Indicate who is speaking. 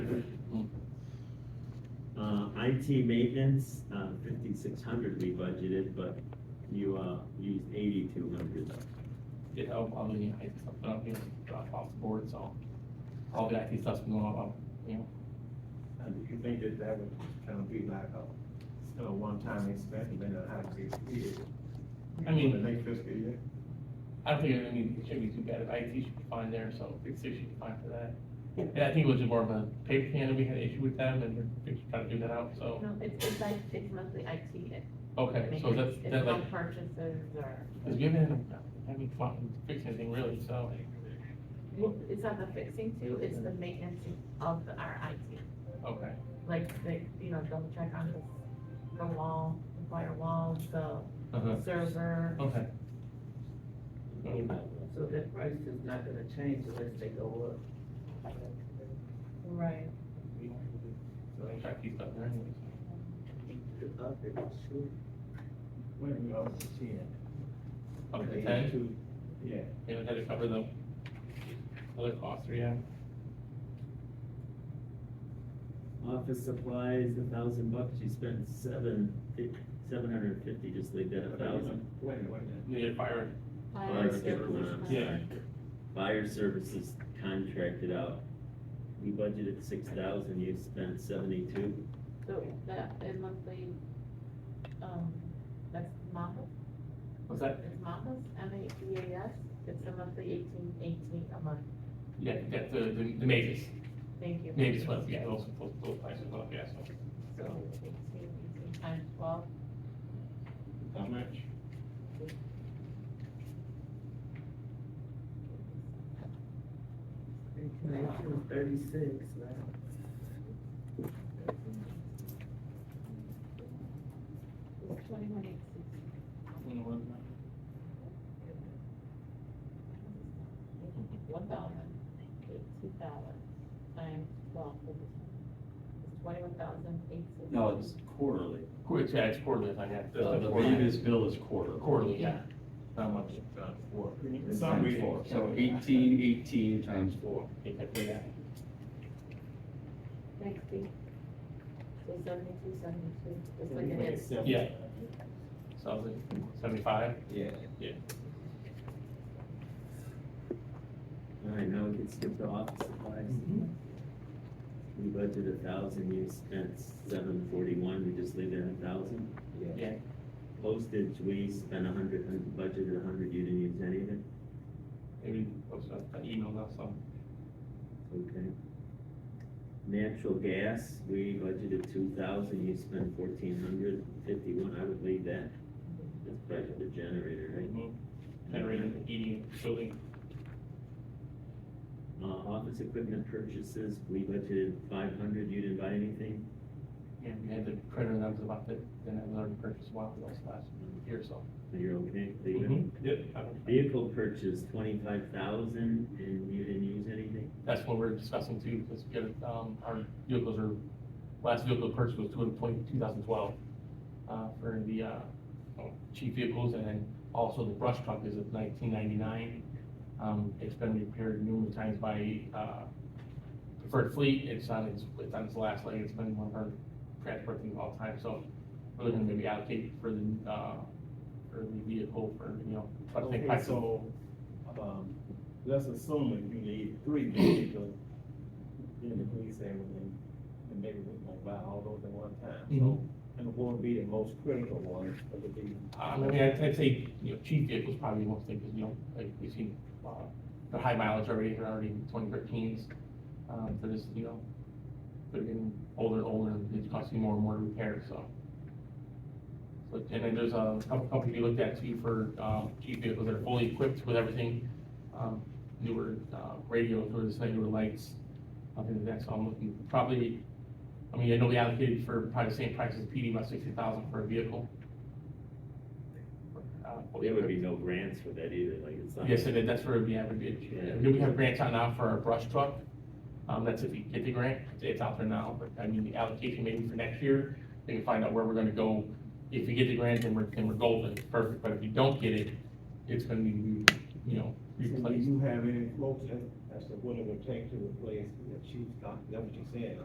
Speaker 1: IT Uh, maintenance, uh, fifty-six hundred we budgeted, but you, uh, used eighty-two hundred.
Speaker 2: get help on the IT stuff, but I'm getting dropped off the board, so all the IT stuff's been going on, you know,
Speaker 3: And you think that that would kind of be like a, a one-time expense, and then a high six years?
Speaker 2: I mean-
Speaker 3: For The next fiscal year?
Speaker 2: I don't think, I mean, it shouldn't be too bad, IT should be fine there, so fix it should be fine for that. And I think it was more of a paper can, we had an issue with them, and we're fix- trying to do that out, so,
Speaker 4: No, it's, it's like, it's mostly IT.
Speaker 2: okay, so that's,
Speaker 4: It's
Speaker 2: that like,
Speaker 4: home purchases or,
Speaker 2: because we haven't, haven't fucking fixed anything really, so.
Speaker 4: well, it's not the fixing too, it's the maintenance of the- our IT.
Speaker 2: Okay,
Speaker 4: Like, the, you know, double check on the, the wall, the firewall, the
Speaker 2: uh-huh,
Speaker 4: server.
Speaker 2: okay,
Speaker 5: So that price is not gonna change unless they go up.
Speaker 4: Right.
Speaker 2: so they track these stuff there anyways.
Speaker 5: Up, it was sure.
Speaker 3: When we go to ten?
Speaker 2: Okay, ten,
Speaker 3: Two, Yeah,
Speaker 2: and it had to cover the other costs, yeah,
Speaker 1: Office supplies, a thousand bucks, you spent seven, seven hundred and fifty, just leave that a thousand.
Speaker 3: wait, a minute, wait a minute.
Speaker 2: we need a fire
Speaker 1: Fire services,
Speaker 2: Yeah.
Speaker 1: Fire services contracted out, we budgeted six thousand, you spent seventy-two.
Speaker 4: So that, it monthly, um, that's Mapas,
Speaker 2: Was that,
Speaker 4: it's Mapas, M A P A S, it's a monthly eighteen, eighteen a month,
Speaker 2: yeah, that, the, the, the Mavis,
Speaker 4: thank you.
Speaker 2: Mavis was, yeah, those, those, those prices went up, yeah, so.
Speaker 4: So eighteen, eighteen times twelve,
Speaker 2: How much?
Speaker 5: It was thirty-six, right?
Speaker 4: it's twenty-one eight six. One thousand, eighteen dollars, times twelve, it's twenty-one thousand eight six.
Speaker 6: No, it's quarterly.
Speaker 2: Qu- yeah, it's quarterly, I got.
Speaker 6: The the previous bill is quarterly.
Speaker 2: Quarterly, yeah.
Speaker 6: How much? Four.
Speaker 3: uh, It's some
Speaker 6: Times
Speaker 3: reason.
Speaker 6: four, so eighteen, eighteen times four.
Speaker 2: Exactly, yeah.
Speaker 4: Sixty. So seventy-two, seventy-two, just like it is.
Speaker 2: Yeah. So I was like, seventy-five,
Speaker 3: Yeah.
Speaker 1: All right, now we can skip the office supplies.
Speaker 6: Mm-hmm.
Speaker 1: We budgeted a thousand, you spent seven forty-one, we just leave that a thousand.
Speaker 2: yeah,
Speaker 1: Postage, we spent a hundred, and budgeted a hundred, you didn't use any of it,
Speaker 2: maybe, oops, an email now, so.
Speaker 1: okay. Natural gas, we budgeted two thousand, you spent fourteen hundred fifty-one, I would leave that. That's probably for the generator, right?
Speaker 2: Generating, heating, E building,
Speaker 1: Uh, office equipment purchases, we budgeted five hundred, you didn't buy anything?
Speaker 2: and we had the printer that was about it, then I learned to purchase one of those last year, so.
Speaker 1: You're okay, leave
Speaker 3: Mm-hmm.
Speaker 1: it.
Speaker 2: Mhm, Yep. I don't-
Speaker 1: Vehicle purchase, twenty-five thousand, and you didn't use anything?
Speaker 2: That's what we're discussing too, because we got, um, our vehicles are, last vehicle purchase was two thousand twelve uh, for the, uh, oh, cheap vehicles, and then also the brush truck is of nineteen ninety-nine. Um, it's been repaired numerous times by, uh, Preferred Fleet, it's on its, it's on its last leg, it's been one of our transport things all the time, so we're looking to maybe allocate for the, uh, for the vehicle for, you know, I think,
Speaker 3: Okay, so, um, let's assume that you need three vehicles in the police everything, and maybe we can buy all those at one time, so.
Speaker 2: Mhm.
Speaker 3: And what would be the most critical one, that would be
Speaker 2: I mean, I'd, I'd say, you know, chief vehicles probably most things, you know, like we've seen, uh, the high mileage already, they're already twenty thirteens. Um, they're just, you know, they're getting older and older, and it's costing more and more to repair, so. So, and then there's a couple companies we looked at too for, um, chief vehicles that are fully equipped with everything. Um, newer, uh, radios, newer, this, newer lights, I think that's, all I'm looking, probably, I mean, I know we allocated for probably the same price as PD, about sixty thousand for a vehicle. Uh,
Speaker 1: There would be no grants for that either, like it's not.
Speaker 2: Yes, and then that's where we have, a bid.
Speaker 1: Yeah.
Speaker 2: we have grants out now for our brush truck. Um, that's if we get the grant, it's out there now, but I mean, the allocation maybe for next year, we can find out where we're gonna go. If we get the grant, then we're, then we're golden, perfect, but if we don't get it, it's gonna be, you know,
Speaker 3: So do
Speaker 2: replaced.
Speaker 3: you have any quotes as, as to what it would take to replace the chief, doc- that's what you're saying,